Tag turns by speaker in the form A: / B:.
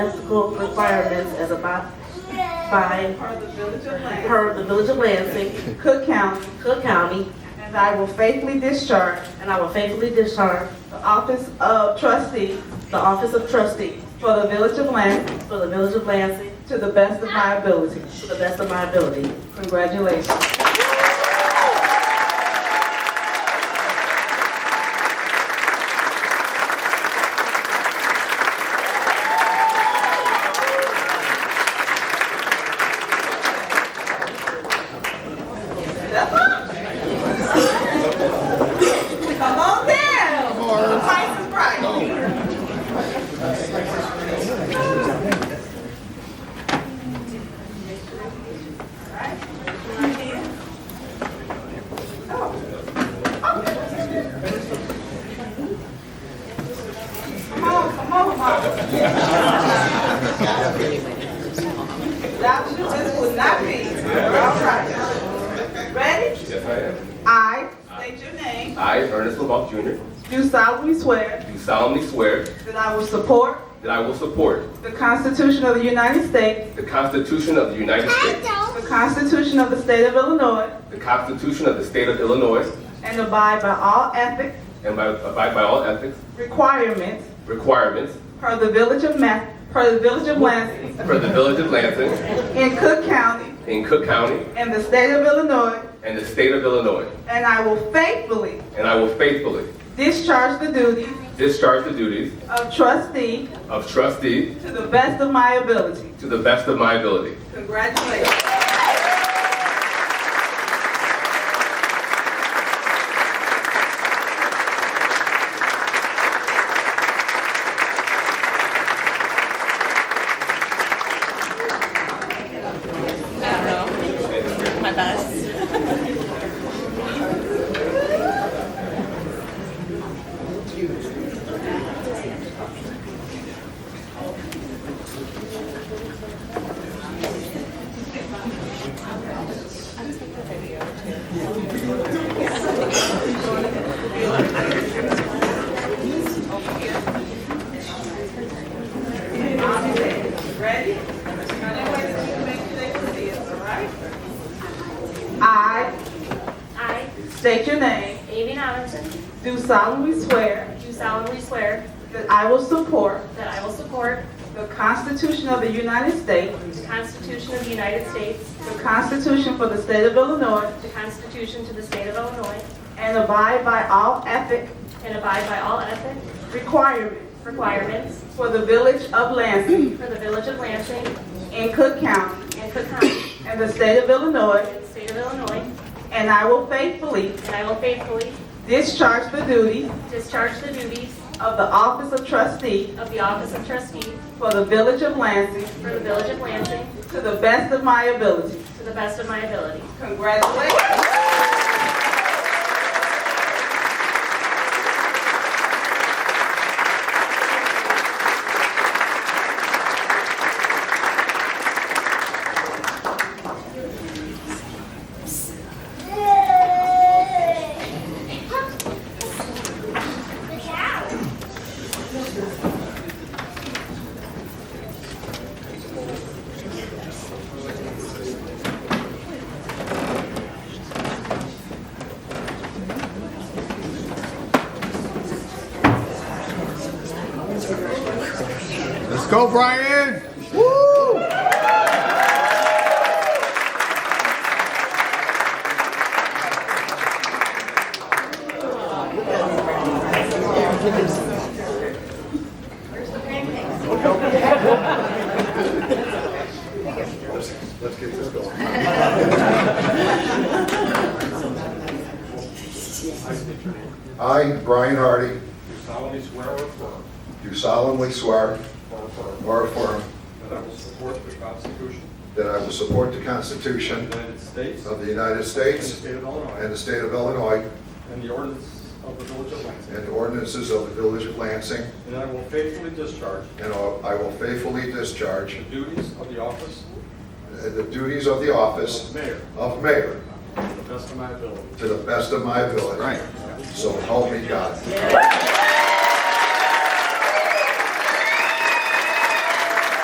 A: Ethical requirements as about by
B: For the Village of Lansing,
A: per the Village of Lansing,
B: Cook County,
A: Cook County,
B: and I will faithfully discharge
A: and I will faithfully discharge
B: the office of trustee
A: the office of trustee
B: for the Village of Lansing
A: for the Village of Lansing
B: to the best of my ability.
A: to the best of my ability.
B: Congratulations. Come on down. Price is right. Come on, come on, mama. Without you, this would not be. All right. Ready?
C: Yes, I
B: I state your name.
C: am. I, Ernest LeBlanc Jr.,
B: Do solemnly swear
C: do solemnly swear
B: that I will support
C: that I will support
B: the Constitution of the United States,
C: the Constitution of the United States,
B: the Constitution of the State of Illinois,
C: the Constitution of the State of Illinois,
B: and abide by all ethics,
C: and by- abide by all ethics,
B: requirements
C: requirements
B: per the Village of Ma, per the Village of Lansing
C: for the Village of Lansing
B: in Cook County
C: in Cook County
B: and the State of Illinois,
C: and the State of Illinois,
B: and I will faithfully
C: and I will faithfully
B: discharge the duties
C: discharge the duties
B: of trustee
C: of trustee
B: to the best of my ability.
C: to the best of my ability.
B: Congratulations.
D: my best.
B: Ready? Now, that way that you can make sure they can see us, all right? I
E: I,
B: state your name,
E: Amy Adamson,
B: do solemnly swear
E: do solemnly swear
B: that I will support
E: that I will support
B: the Constitution of the United States,
E: the Constitution of the United States,
B: the Constitution for the State of Illinois,
E: the Constitution to the State of Illinois,
B: and abide by all ethic
E: and abide by all ethic
B: requirements
E: requirements
B: for the Village of Lansing
E: for the Village of Lansing
B: in Cook County
E: and Cook County
B: and the State of Illinois,
E: and the State of Illinois,
B: and I will faithfully
E: and I will faithfully
B: discharge the duties
E: discharge the duties
B: of the Office of Trustee
E: of the Office of Trustee
B: for the Village of Lansing
E: for the Village of Lansing
B: to the best of my ability.
E: to the best of my ability.
B: Congratulations.
F: Let's go, Brian! Woo!
G: I, Brian Hardy,
H: Do solemnly swear or affirm
G: do solemnly swear
H: or affirm
G: or affirm
H: that I will support the Constitution
G: that I will support the
H: of
G: Constitution
H: the United States and
G: of the United
H: the
G: States
H: state of
G: and
H: Illinois
G: the state of Illinois
H: and the ordinance of the Village of Lansing,
G: and ordinances of the Village of Lansing,
H: and I will faithfully discharge
G: and I will faithfully discharge
H: the duties of the office
G: the duties of the office
H: of mayor
G: of mayor
H: to the best of my ability.
G: to the best of my ability.
F: Right.
G: So help me God.
H: Congratulations.